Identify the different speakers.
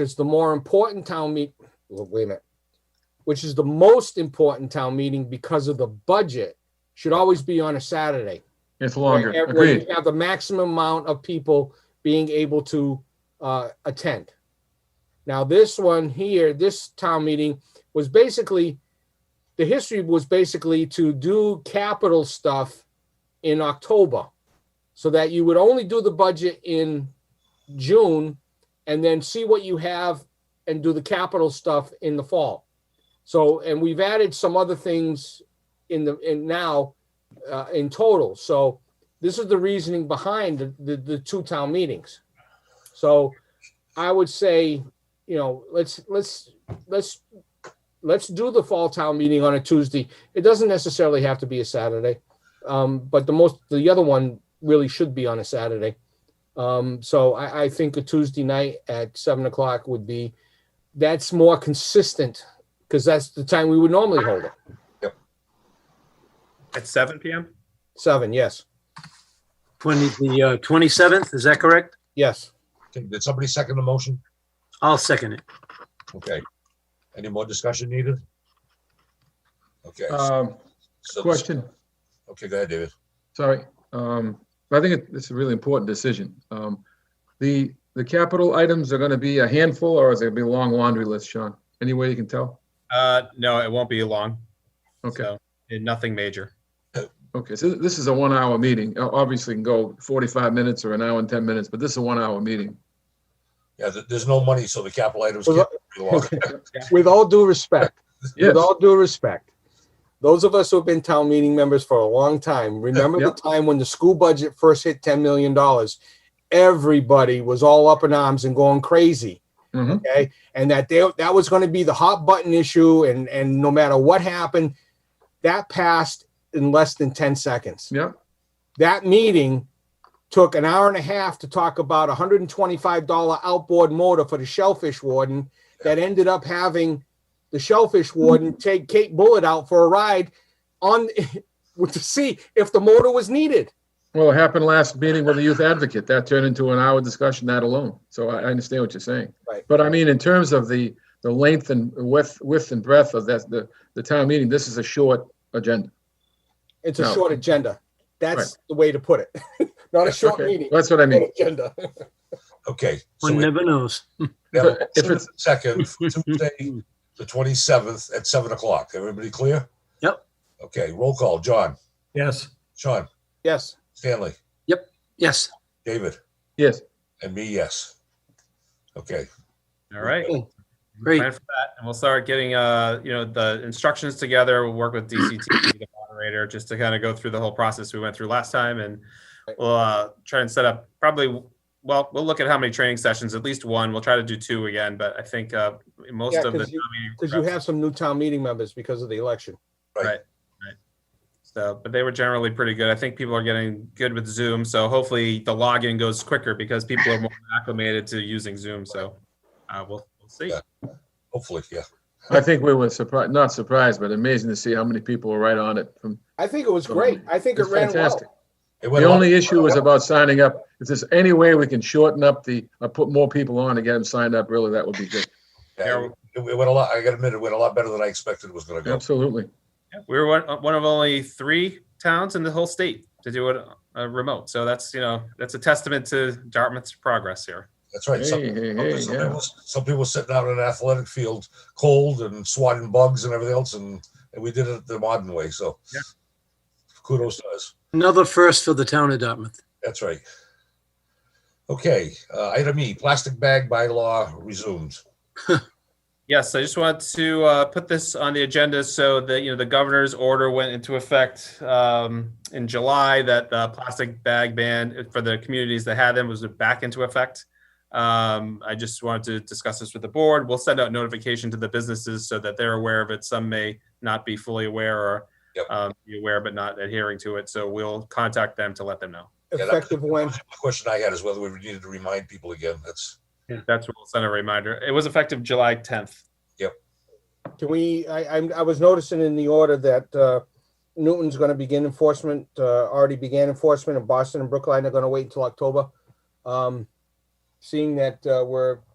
Speaker 1: is the more important town meet, well, wait a minute, which is the most important town meeting because of the budget, should always be on a Saturday.
Speaker 2: It's longer.
Speaker 1: Where- where
Speaker 2: Agreed.
Speaker 1: you Have the maximum amount of people being able to, uh, attend. Now, this one here, this town meeting was basically, the history was basically to do capital stuff in October. So that you would only do the budget in June and then see what you have and do the capital stuff in the fall. So, and we've added some other things in the, in now, uh, in total. So this is the reasoning behind the, the, the two town meetings. So I would say, you know, let's, let's, let's, let's do the fall town meeting on a Tuesday. It doesn't necessarily have to be a Saturday. Um, but the most, the other one really should be on a Saturday. Um, so I, I think a Tuesday night at seven o'clock would be, that's more consistent because that's the time we would normally hold it.
Speaker 3: At seven PM?
Speaker 1: Seven, yes,
Speaker 4: 20, the uh, 27th, is that correct?
Speaker 1: yes.
Speaker 5: Okay, Did somebody second the motion?
Speaker 4: I'll second it.
Speaker 5: Okay. Any more discussion needed? Okay.
Speaker 2: Um,
Speaker 5: so-
Speaker 2: question,
Speaker 5: Okay, go ahead, David.
Speaker 2: sorry. Um, but I think it- this is a really important decision. Um, the, the capital items are gonna be a handful or is it gonna be a long laundry list, Sean? Any way you can tell?
Speaker 3: Uh, no, it won't be long.
Speaker 2: Okay,
Speaker 3: So, and nothing major.
Speaker 2: okay. So this is a one hour meeting. O- Obviously it can go 45 minutes or an hour and 10 minutes, but this is a one hour meeting.
Speaker 5: Yeah, there- there's no money, so the capital items
Speaker 1: Well,
Speaker 5: can't be long.
Speaker 1: With all due respect,
Speaker 2: Yes,
Speaker 1: With all due respect, those of us who've been town meeting members for a long time, remember the
Speaker 2: Yep.
Speaker 1: time when the school budget first hit ten million dollars? Everybody was all up in arms and going crazy,
Speaker 2: mhm.
Speaker 1: okay? And that they, that was gonna be the hot button issue and, and no matter what happened, that passed in less than ten seconds.
Speaker 2: yeah,
Speaker 1: That meeting took an hour and a half to talk about a hundred and twenty-five dollar outboard motor for the shellfish warden that ended up having the shellfish
Speaker 2: Mm-hmm.
Speaker 1: warden take Kate Bullet out for a ride on to see if the motor was needed.
Speaker 2: Well, it happened last meeting with the youth advocate. That turned into an hour discussion, that alone. So I, I understand what you're saying.
Speaker 1: Right.
Speaker 2: But I mean, in terms of the, the length and width, width and breadth of that, the, the town meeting, this is a short agenda.
Speaker 1: It's a
Speaker 2: No.
Speaker 1: short agenda. That's the way to put it. Not a short
Speaker 2: Okay,
Speaker 1: meeting.
Speaker 2: That's what I
Speaker 1: short
Speaker 2: mean.
Speaker 1: agenda.
Speaker 5: Okay. so
Speaker 4: One
Speaker 5: we
Speaker 4: never knows.
Speaker 5: have a
Speaker 2: If
Speaker 5: motion
Speaker 2: it's-
Speaker 5: and a Second, for Tuesday, the twenty-seventh at seven o'clock. Everybody clear?
Speaker 4: Yep.
Speaker 5: Okay, roll call. John,
Speaker 4: Yes.
Speaker 5: Sean,
Speaker 1: Yes.
Speaker 5: Stanley,
Speaker 4: Yes.
Speaker 5: David,
Speaker 2: Yes,
Speaker 5: and me, yes. Okay,
Speaker 3: All right.
Speaker 4: Okay.
Speaker 3: Plan
Speaker 4: Great.
Speaker 3: for that, And we'll start getting, uh, you know, the instructions together. We'll work with DCT, the moderator, just to kind of go through the whole process we went through last time and we'll, uh, try and set up probably, well, we'll look at how many training sessions, at least one. We'll try to do two again, but I think, uh, most
Speaker 1: Yeah,
Speaker 3: of the.
Speaker 1: 'cause you-
Speaker 3: town meeting
Speaker 1: Because you
Speaker 3: reps-
Speaker 1: have some new town meeting members because of the election.
Speaker 3: So, but they were generally pretty good. I think people are getting good with Zoom. So hopefully the login goes quicker because people are more acclimated to using Zoom. So uh, we'll, we'll see.
Speaker 5: Yeah. hopefully, yeah.
Speaker 2: I think we were surprised, not surprised, but amazing to see how many people were right on it. From
Speaker 1: I think it was great. I think it
Speaker 2: Mm-hmm. It's
Speaker 1: ran well.
Speaker 2: fantastic.
Speaker 5: It
Speaker 2: The
Speaker 5: went on.
Speaker 2: only issue was about signing up. If there's any way we can shorten up the, uh, put more people on and get them signed up, really, that would be good.
Speaker 5: Yeah, It it went a lot, I gotta admit, it went a lot better than I expected it was gonna go.
Speaker 2: Absolutely.
Speaker 3: Yeah, We were one, uh, one of only three towns in the whole state to do it uh, remote. So that's, you know, that's a testament to Dartmouth's progress here.
Speaker 5: That's right. Some-
Speaker 2: Hey, hey, hey,
Speaker 5: Some some
Speaker 2: yeah.
Speaker 5: people, some people sitting out in an athletic field, cold and swatting bugs and everything else, and, and we did it the modern way. So
Speaker 3: Yeah.
Speaker 5: kudos to us.
Speaker 4: Another first for the town of Dartmouth.
Speaker 5: That's right. Okay, uh, item E, plastic bag bylaw resumed.
Speaker 3: Yes, I just wanted to uh, put this on the agenda so that, you know, the governor's order went into effect um, in July that the plastic bag ban for the communities that had them was back into effect. Um, I just wanted to discuss this with the board. We'll send out notification to the businesses so that they're aware of it. Some may not be fully aware or
Speaker 5: Yep.
Speaker 3: um, be aware but not adhering to it. So we'll contact them to let them know.
Speaker 5: Yeah, that-
Speaker 1: Effective when?
Speaker 5: The question I had is whether we needed to remind people again. That's,
Speaker 3: That's what we'll send a reminder. It was effective July 10th.
Speaker 1: Can we, I, I'm, I was noticing in the order that, uh, Newton's gonna begin enforcement, uh, already began enforcement and Boston and Brookline are gonna wait until October. Um, seeing that, uh, we're